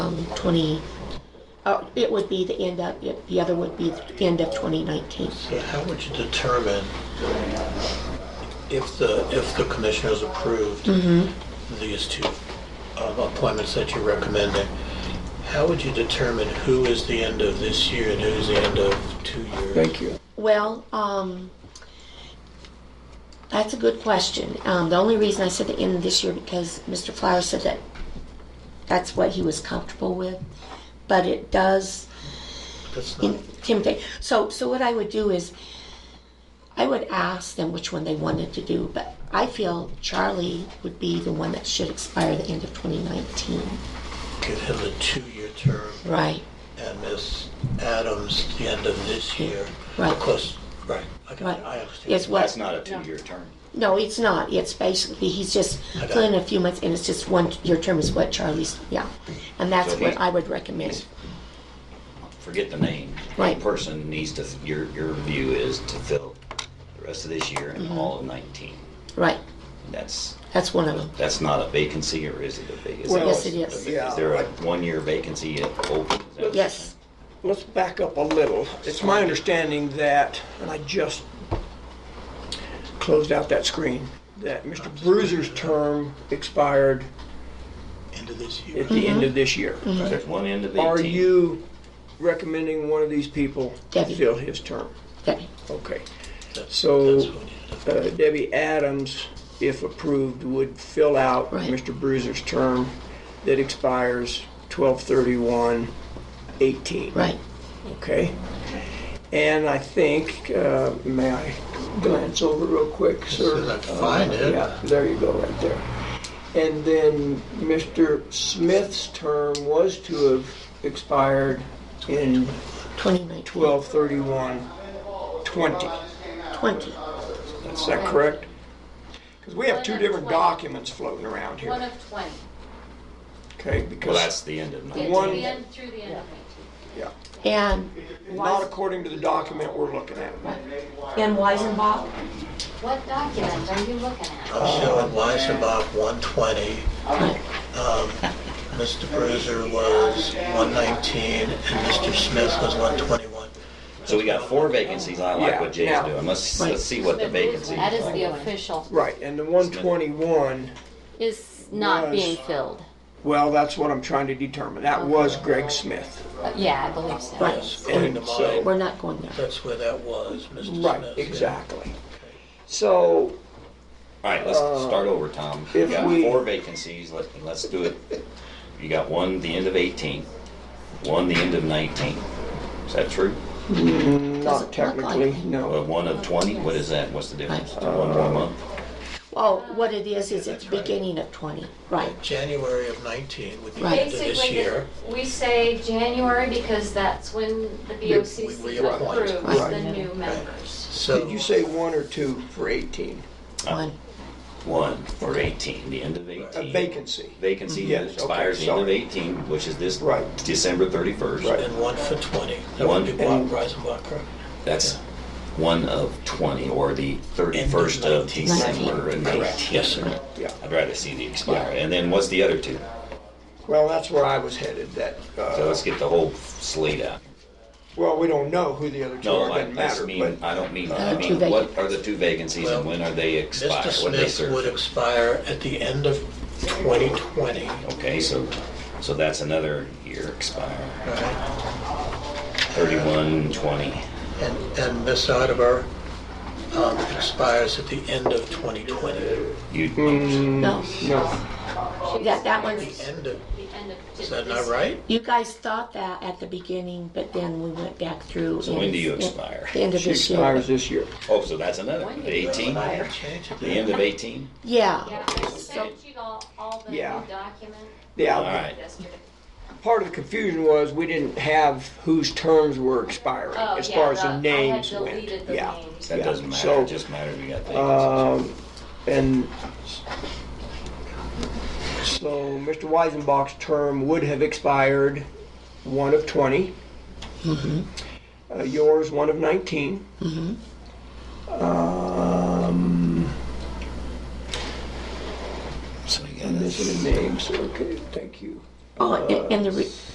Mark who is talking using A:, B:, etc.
A: um, twenty, uh, it would be the end of, it- the other would be the end of twenty nineteen.
B: So how would you determine if the, if the commissioners approved
C: Mm-hmm.
B: these two um, appointments that you're recommending, how would you determine who is the end of this year and who's the end of two years?
C: Thank you.
A: Well, um, that's a good question. Um, the only reason I said the end of this year because Mr. Flowers said that that's what he was comfortable with, but it does
B: That's not,
A: intimidate. So, so what I would do is, I would ask them which one they wanted to do, but I feel Charlie would be the one that should expire the end of 2019.
B: give him the two-year term
A: Right.
B: and Ms. Adams the end of this year.
A: Right.
B: Of course, right, I can-
A: Right.
B: I understand.
A: It's what?
D: That's not a two-year term.
A: No, it's not. It's basically he's just
B: got it.
A: filling a few months, and it's just one. Your term is what Charlie's. Yeah, and that's
D: So
A: what
D: he-
A: I would recommend.
D: Forget the name.
A: Right.
D: That person needs to, your, your view is to fill the rest of this year and
A: Mm-hmm.
D: all of 19.
A: Right.
D: That's,
A: That's one of them.
D: that's not a vacancy, or is it a vacancy?
C: Well,
A: Yes, it is.
D: Is there a one-year vacancy at open? Is that-
A: Yes.
C: Let's back up a little. It's my understanding that, and I just closed out that screen, that Mr. Bruiser's term expired
B: End of this year.
C: at the end of this year.
A: Mm-hmm.
D: There's one end of 18.
C: Are you recommending one of these people
A: Debbie.
C: fill his term?
A: Okay.
C: Okay.
B: That's-
C: So-
B: that's what you-
C: Uh, Debbie Adams, if approved, would fill out
A: Right.
C: Mr. Bruiser's term that expires 12/31/18.
A: Right.
C: Okay. And I think, uh, may I glance over real quick, sir?
B: as I find
C: Uh,
B: it.
C: Yeah, there you go, right there. And then Mr. Smith's term was to have expired in
A: 2019.
C: 12/31/20.
A: 20.
C: Is that correct? Because we have two different documents floating around
E: One
C: here,
E: of 20.
C: okay?
D: Well,
C: Because,
D: that's the end of
E: Yeah,
D: 19.
C: One-
E: to the end, through the end of 19.
C: yeah,
A: And
C: not according to the document we're looking at.
A: and Weisenbach.
E: What document are you looking at?
B: I'm showing Weisenbach 120. Um, Mr. Bruiser was 119 and Mr. Smith was 121.
D: So we got four vacancies. I like what Jay's
C: Yeah.
D: doing. Let's,
A: Right.
D: let's see what the vacancy
E: That is
D: is.
E: the official,
C: Right, and the 121
E: is not
C: Was.
E: being filled.
C: Well, that's what I'm trying to determine. That was Greg Smith.
E: Uh, Yeah, I believe so.
A: Right.
B: According to
C: And so-
B: mine,
A: We're not going there.
B: that's where that was, Mr. Smith.
C: Right,
B: yeah.
C: exactly. So,
D: All right, let's start over, Tom. You
C: Uh, if
D: got
C: we-
D: four vacancies, let, let's do it. You got one the end of 18, one the end of 19. Is that true?
A: Doesn't
C: not
A: look like
C: technically,
A: it.
D: Well,
C: no.
D: one of 20, what is that? What's the difference?
C: Uh,
D: One more month?
A: Oh, what it is is at the beginning of 20. Right.
B: January of 19 would be the
A: Right.
B: end of this
E: Basically,
B: year.
E: we say January because that's when the
B: we
E: BOCC
B: appoint.
E: approves
C: Right.
E: the new members.
B: So
C: Did you say one or two for 18?
A: One.
D: Uh, One for 18, the end of 18.
C: A vacancy.
D: Vacancy that
C: Yes, okay,
D: expires the end of
C: sorry.
D: 18, which is this
C: Right.
D: December 31st.
C: Right.
B: and one for 20. That
D: One-
B: would be Bob Weisenbach, correct?
D: That's one of 20, or the 31st of
B: 19.
D: December. and Correct.
B: Yes, sir.
C: Yeah.
D: I'd rather see the expire. And then what's the other two?
C: Well, that's where I was headed, that,
D: So
C: uh,
D: let's get the whole slate out.
C: well, we don't know who the other two
D: No,
C: are,
D: I
C: doesn't
D: just
C: matter,
D: mean,
C: but,
D: I don't mean,
A: Uh,
D: I
A: two
D: mean,
A: vac-
D: what are the two vacancies and
B: Well,
D: when are they expire?
B: Mr.
D: When they
B: Smith would
D: serve?
B: expire at the end of 2020.
D: Okay, so, so that's another year expire,
B: Right.
D: thirty-one, twenty.
B: And, and Ms. Audubon, um expires at the end of 2020. Mm.
D: You,
A: No.
C: no,
A: That, that
B: The
A: one's.
B: end of,
E: The end of
B: is that not right?
A: You guys thought that at the beginning, but then we went back through.
D: So
A: and
D: when do
A: it's
D: you
A: at
D: expire?
A: The end of
C: she
A: this year.
C: expires this year.
D: oh, so that's another,
E: When did
D: eighteen,
B: I
D: the
B: didn't change it.
D: end of eighteen?
E: Yeah,
A: Yeah.
E: I sent you all, all the new
C: Yeah.
E: document
D: All
C: Yeah,
D: right,
E: yesterday.
C: part of the confusion was we didn't have whose terms were expiring,
E: Oh,
C: as
E: yeah,
C: far as
E: the-
C: the names
E: I had
C: went,
E: deleted the
C: yeah.
E: names.
D: that
C: Yeah,
D: doesn't matter,
C: so,
D: it just matters we got
B: uh,
D: vacancies.
C: Um, and so Mr. Weisenbach's term would have expired one of 20. Uh, yours, one of 19. Um,
D: So you got
C: missing a name, so okay, thank you.
A: Oh, and, and the, re-